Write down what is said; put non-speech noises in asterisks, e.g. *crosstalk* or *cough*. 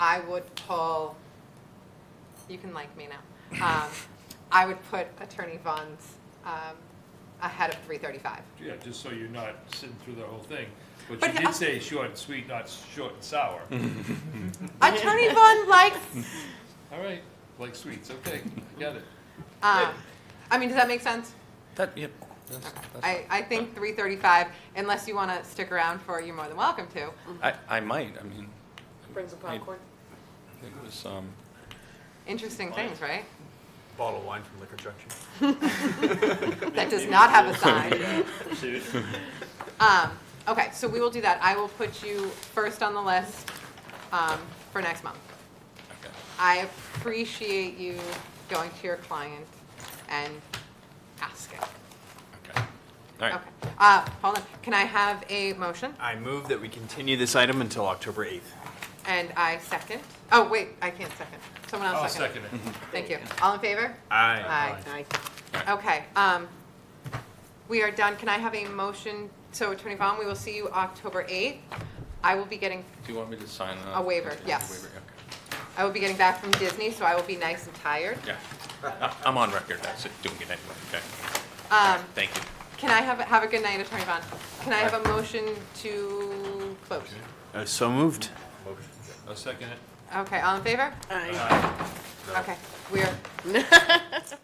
I would pull, you can like me now. Um, I would put Attorney Vaughn's um, ahead of 335. Yeah, just so you're not sitting through the whole thing. But But you I- did say short and sweet, not short and sour. Attorney Vaughn likes, All right, like sweets, okay, I got it. uh, I mean, does that make sense? That, yep. I, I think 335, unless you want to stick around for, you're more than welcome to. I, I might, I mean, Bring some popcorn. it was, um, Interesting things, right? Bottle of wine from Liquor Junction. That does not have a sign. Pursuit. *laughs* Um, okay, so we will do that. I will put you first on the list, um, for next month. okay. I appreciate you going to your client and asking. Okay. All right. Okay, uh, hold on, can I have a motion? I move that we continue this item until October 8th. And I second, oh, wait, I can't second, someone I'll else Oh, second it. Thank you, all in favor? Aye. Aye. Okay, um, we are done. Can I have a motion? So Attorney Vaughn, we will see you October 8th. I will be getting, Do you want me to sign? uh, A waiver, okay, yes. waiver, okay. I will be getting back from Disney, so I will be nice and tired. Yeah. I- I'm on record, that's it, doing it anyway, okay. Um, Thank you. Can I have, have a good night, Attorney Vaughn. Can I have a motion to close? Uh, So moved. I'll second it. Okay, all in favor? Aye. Okay, we are